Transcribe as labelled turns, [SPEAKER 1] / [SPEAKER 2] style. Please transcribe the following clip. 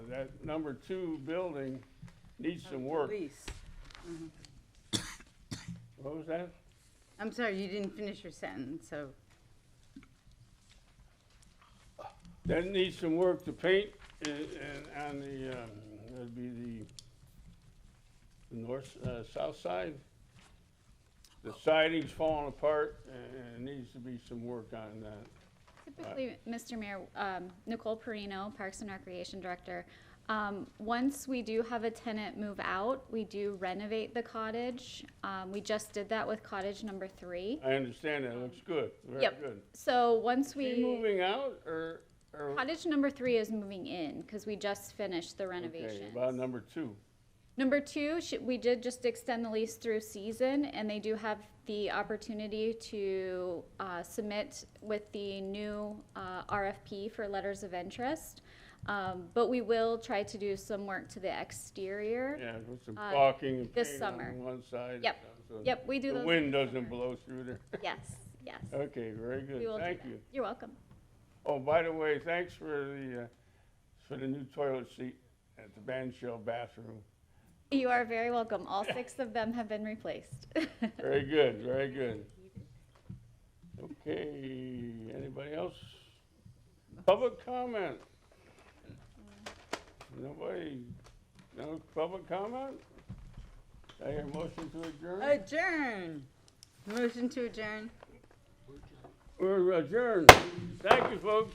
[SPEAKER 1] that number two building needs some work.
[SPEAKER 2] Police.
[SPEAKER 1] What was that?
[SPEAKER 2] I'm sorry, you didn't finish your sentence, so,
[SPEAKER 1] That needs some work to paint and, and on the, um, that'd be the the north, uh, south side. The siding's falling apart and, and it needs to be some work on that.
[SPEAKER 3] Typically, Mr. Mayor, um, Nicole Perino, Parks and Recreation Director, um, once we do have a tenant move out, we do renovate the cottage. Um, we just did that with cottage number three.
[SPEAKER 1] I understand that, looks good, very
[SPEAKER 3] Yep.
[SPEAKER 1] good.
[SPEAKER 3] So once
[SPEAKER 1] Are
[SPEAKER 3] we.
[SPEAKER 1] you moving out or, or?
[SPEAKER 3] Cottage number three is moving in, because we just finished the
[SPEAKER 1] Okay,
[SPEAKER 3] renovation.
[SPEAKER 1] About number two.
[SPEAKER 3] Number two, sh- we did just extend the lease through season, and they do have the opportunity to uh, submit with the new uh, RFP for letters of interest. Um, But we will try to do some work to the exterior.
[SPEAKER 1] Yeah, with some
[SPEAKER 3] Uh,
[SPEAKER 1] caulking and
[SPEAKER 3] this
[SPEAKER 1] paint on
[SPEAKER 3] summer.
[SPEAKER 1] one side.
[SPEAKER 3] Yep.
[SPEAKER 1] so
[SPEAKER 3] Yep, we do those
[SPEAKER 1] The
[SPEAKER 3] this
[SPEAKER 1] wind doesn't
[SPEAKER 3] summer.
[SPEAKER 1] blow through there.
[SPEAKER 3] Yes, yes.
[SPEAKER 1] Okay, very
[SPEAKER 3] We will
[SPEAKER 1] good,
[SPEAKER 3] do
[SPEAKER 1] thank
[SPEAKER 3] that.
[SPEAKER 1] you.
[SPEAKER 3] You're welcome.
[SPEAKER 1] Oh, by the way, thanks for the, uh, for the new toilet seat at the band shell bathroom.
[SPEAKER 3] You are very welcome. All six of them have been replaced.
[SPEAKER 1] Very good, very good. Okay, anybody else? Public comment? Nobody, no public comment? I hear motion to adjourn?
[SPEAKER 2] adjourn. Motion to adjourn.
[SPEAKER 1] We're adjourned. Thank you, folks.